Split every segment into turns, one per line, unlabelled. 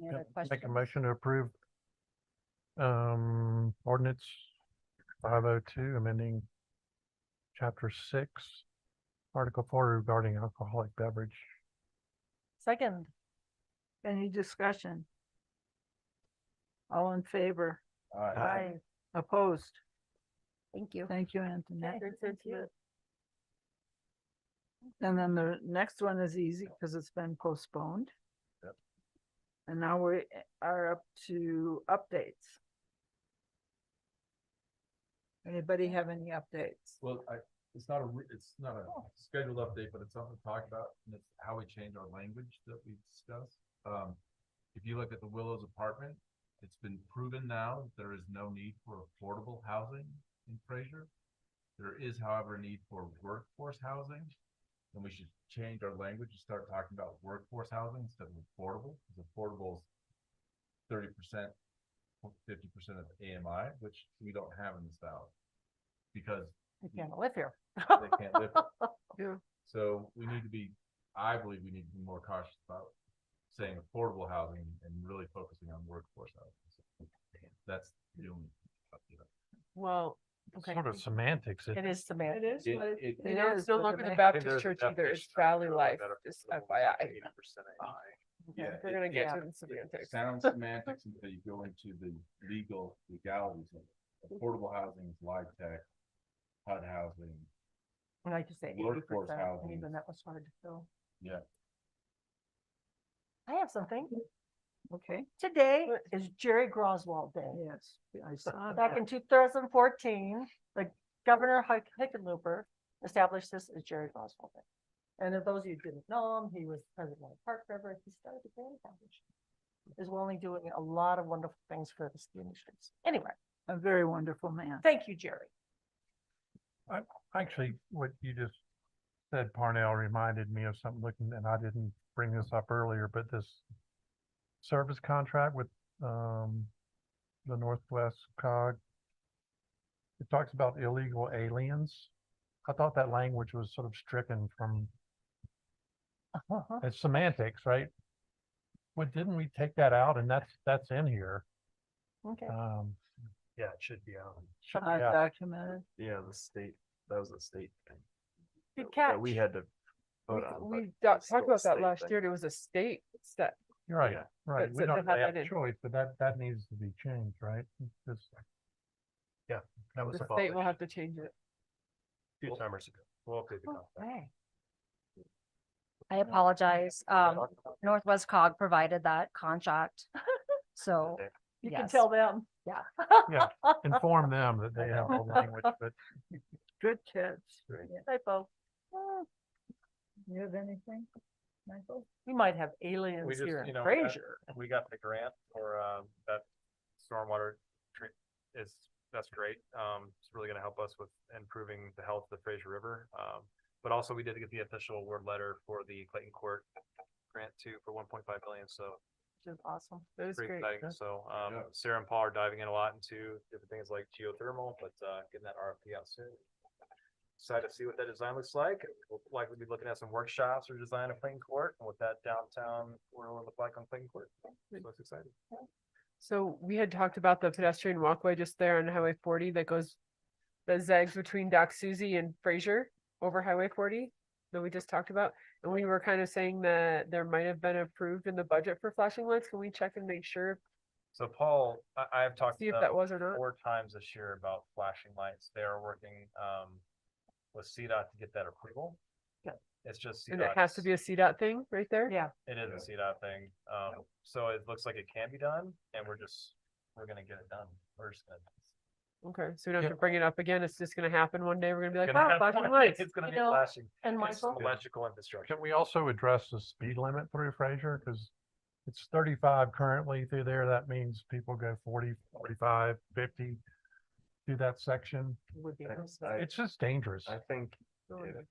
Any other
Make a
questions?
motion to approve um, ordinance five oh two, amending chapter six, article four regarding alcoholic beverage.
Second,
Any discussion? All in favor?
Aye.
Opposed?
thank you.
Thank you, Antoinette.
Okay, thank you.
And then the next one is easy because it's been postponed.
Yep.
And now we are up to updates. Anybody have any updates?
Well, I, it's not a, re- it's not a scheduled update, but it's something to talk about, and it's how we change our language that we discussed. Um, if you look at the Willows apartment, it's been proven now, that there is no need for affordable housing in Fraser. There is however a need for workforce housing, and we should change our language and start talking about workforce housing instead of affordable, because affordable is thirty percent, fifty percent of AMI, which we don't have in this valley. Because
I can't live here.
they can't live.
Yeah.
So we need to be, I believe we need to be more cautious about saying affordable housing and really focusing on workforce housing. So That's the only.
Well, okay.
Sort of semantics.
It is semantic.
is.
It-
but-
it-
You
It
know, it's
is,
no
but
longer
it
the
may-
Baptist church either. It's Valley Life, just FYI.
Yeah,
We're
it-
gonna
it-
get to
it-
the
it
semantics.
Sounds semantics until you go into the legal legalities of it. Affordable housing is live tech, HUD housing,
I Like you say, eighty
Workforce
percent,
housing.
even that was hard to fill.
I have something.
Okay,
Today
What?
is Jerry Groswald Day.
yes, I saw
Back
that.
in two thousand fourteen, the Governor Hick- Hickenlooper established this as Jerry Groswald Day. And if those of you who didn't know him, he was president of the Park River. He started the Grand Foundation. Is only doing a lot of wonderful things for the ski industry. Anyway,
A very wonderful man.
thank you, Jerry.
Actually, what you just said, Parnell, reminded me of something looking, and I didn't bring this up earlier, but this service contract with um, the Northwest cog. It talks about illegal aliens. I thought that language was sort of stricken from it's semantics, right? But didn't we take that out and that's, that's in here?
Okay.
Um,
Yeah, it should be out.
Uh,
yeah.
Documented.
Yeah, the state, that was a state thing. that-
Good
that
catch.
We had to
We-
vote on. but
We
it
do- talked
was still a
about that
state
last
thing.
year. There was a state step.
you're right,
Yeah.
right.
But
We
so
don't
to have
really have
that
a
in-
choice, but that, that needs to be changed, right? Because
That was
uh,
The
a
state will have to change it.
Two timers ago. We'll update the
Oh,
contract.
Okay. I apologize. Um, Northwest cog provided that contract. So,
Okay.
You
can
can
tell
tell them.
inform them that they have the language, but
Good catch.
Great.
Yeah.
Typo.
You have anything, Michael?
We might have aliens
just,
here
you
in
know, that-
Fraser.
We got the grant for, um, that stormwater treat is, that's great. Um, it's really gonna help us with improving the health of the Fraser River. Um, but also we did get the official award letter for the Clayton Court grant too for one point five million, so
Which is awesome.
That was
pretty
great.
exciting. So, um,
Yeah.
Sarah and Paul are diving in a lot into different things like geothermal, but, uh, getting that RFP out soon. Excited to see what that design looks like. We'll likely be looking at some workshops or design of Clayton Court and what that downtown corridor will look like on Clayton Court. So it's exciting.
So we had talked about the pedestrian walkway just there on Highway forty that goes that zags between Doc Suzy and Fraser over Highway forty that we just talked about. And we were kind of saying that there might have been approved in the budget for flashing lights. Can we check and make sure,
So Paul, I, I have talked
see
to
if that
them
was or not?
four times this year about flashing lights. They are working, um, with CDOT to get that approval.
Good.
It's just.
And it
CDOT
has
's-
to be a CDOT thing right there?
Yeah.
It is a CDOT thing, um, so it looks like it can be done, and we're just, we're gonna get it done, we're just gonna.
Okay, so we don't
Yeah.
have to bring it up again. It's just gonna happen one day. We're gonna be like,
Gonna
wow,
have
flashing
one-
lights.
It's gonna
You
be
know,
flashing,
And
it's
Michael,
electrical infrastructure,
can we also address the speed limit through Fraser? Because it's thirty-five currently through there. That means people go 40, 45, 50 through that section.
would be
I-
nice.
I-
It's just dangerous,
I think if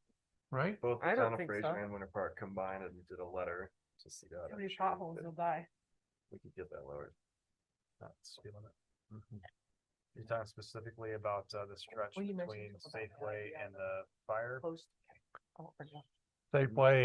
right?
both the
I don't
town of
think
Fraser
so.
and Winter Park combined and did a letter to see that.
Too many potholes, they'll die.
We could get that lowered.
not speed limit.
Mm-hmm.
You're talking specifically about, uh, the stretch
Well, you mentioned
between
something about that,
Safeway
yeah,
and the fire
Post- oh, I forgot.
Safeway